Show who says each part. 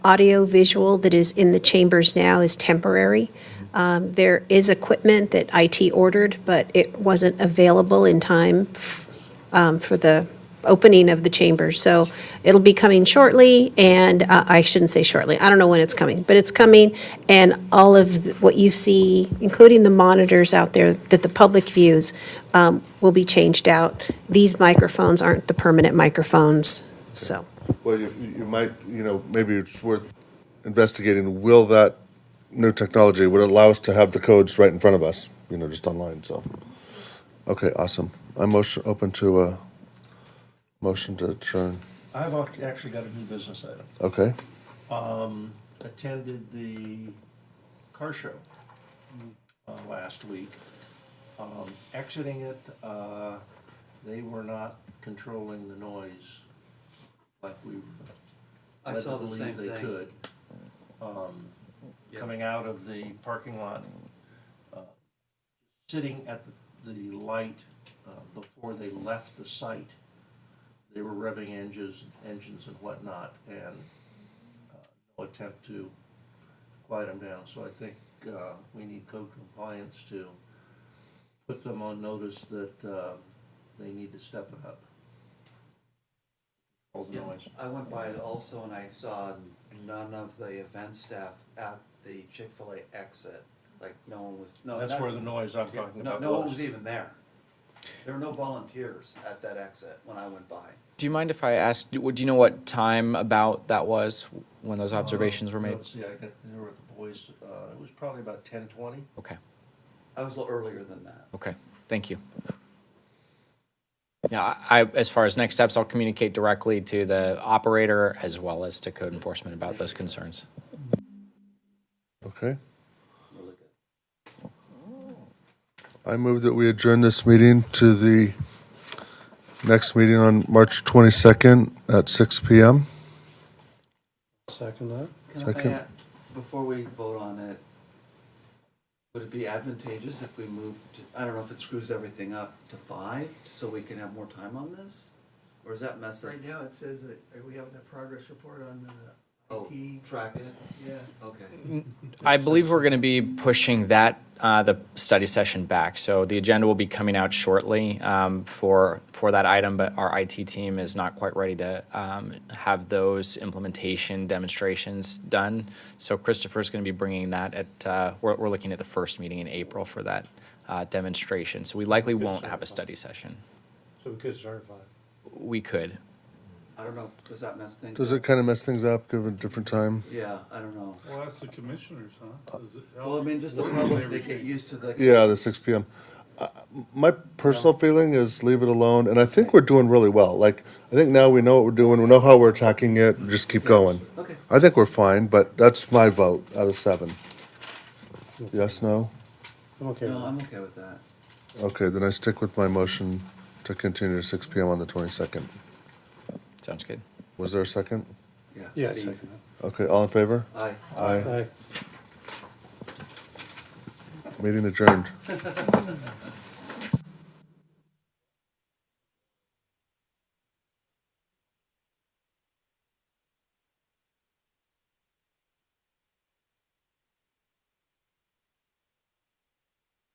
Speaker 1: audiovisual that is in the chambers now is temporary. Um, There is equipment that IT ordered, but it wasn't available in time um, for the opening of the chambers. So it'll be coming shortly, and uh, I shouldn't say shortly, I don't know when it's coming, but it's coming. And all of th- what you see, including the monitors out there that the public views, um, will be changed out. These microphones aren't the permanent microphones, so.
Speaker 2: Well, you, you might, you know, maybe it's worth investigating, will that new technology, would allow us to have the codes right in front of us, you know, just online, so. Okay, awesome. I'm motion, open to a motion to adjourn.
Speaker 3: I've ac- actually got a new business item.
Speaker 2: Okay,
Speaker 3: Attended the car show uh, last week. Um, Exiting it, uh, they were not controlling the noise like we
Speaker 4: I
Speaker 3: led to
Speaker 4: saw the same
Speaker 3: believe they
Speaker 4: thing.
Speaker 3: could. Um, Coming out of the parking lot, uh, sitting at the- the light uh, before they left the site, they were revving engines, engines and whatnot, and uh, no attempt to quiet them down. So I think uh, we need code compliance to put them on notice that uh, they need to step it up. All the
Speaker 4: Yeah,
Speaker 3: noise.
Speaker 4: I went by it also and I saw none of the event staff at the Chick-fil-A exit. Like, no one was, no.
Speaker 3: That's
Speaker 4: not-
Speaker 3: where the noise I'm
Speaker 4: yeah,
Speaker 3: talking
Speaker 4: No,
Speaker 3: about
Speaker 4: no one was
Speaker 3: was.
Speaker 4: even there. There were no volunteers at that exit when I went by.
Speaker 5: Do you mind if I ask, do do you know what time about that was when
Speaker 3: Uh,
Speaker 5: those observations were made?
Speaker 3: Let's see, I got, there were the boys, uh, it was probably about ten twenty.
Speaker 5: Okay,
Speaker 4: I was a little earlier than that.
Speaker 5: okay, thank you. Now, I, as far as next steps, I'll communicate directly to the operator as well as to code enforcement about those concerns.
Speaker 2: okay. I move that we adjourn this meeting to the next meeting on March 22nd at 6 PM.
Speaker 6: Second that?
Speaker 4: Can I
Speaker 2: Second.
Speaker 4: add, uh, before we vote on it, would it be advantageous if we moved, to- I don't know if it screws everything up to five, so we can have more time on this? Or is that messy?
Speaker 7: Right now, it says that uh, we have a progress report on the
Speaker 4: Oh,
Speaker 7: IT,
Speaker 4: track it,
Speaker 7: yeah.
Speaker 4: okay.
Speaker 5: I believe we're going to be pushing that, uh, the study session back. So the agenda will be coming out shortly um, for, for that item, but our IT team is not quite ready to um, have those implementation demonstrations done. So Christopher's going to be bringing that at, uh, we're, we're looking at the first meeting in April for that uh, demonstration. So we likely won't have a study session.
Speaker 6: So we could start at five.
Speaker 5: We could.
Speaker 4: I don't know, does that mess things up?
Speaker 2: Does it kind of mess things up, given different time?
Speaker 4: Yeah, I don't know.
Speaker 6: Well, that's the commissioners, huh? Does it help?
Speaker 4: Well, I mean, just the public, they get used to the.
Speaker 2: Yeah, the six PM. Uh, My personal feeling is leave it alone, and I think we're doing really well. Like, I think now we know what we're doing, we know how we're attacking it, and just keep going.
Speaker 4: Okay.
Speaker 2: I think we're fine, but that's my vote out of seven. Yes, no?
Speaker 6: I'm okay with
Speaker 4: No,
Speaker 6: that.
Speaker 4: I'm okay with that.
Speaker 2: Okay, then I stick with my motion to continue to six PM on the twenty-second.
Speaker 5: Sounds good.
Speaker 2: Was there a second?
Speaker 4: Yeah.
Speaker 6: Yeah, I
Speaker 4: Steve.
Speaker 6: second
Speaker 2: Okay, all in favor?
Speaker 4: Aye.
Speaker 6: that. Aye.
Speaker 2: Meeting adjourned.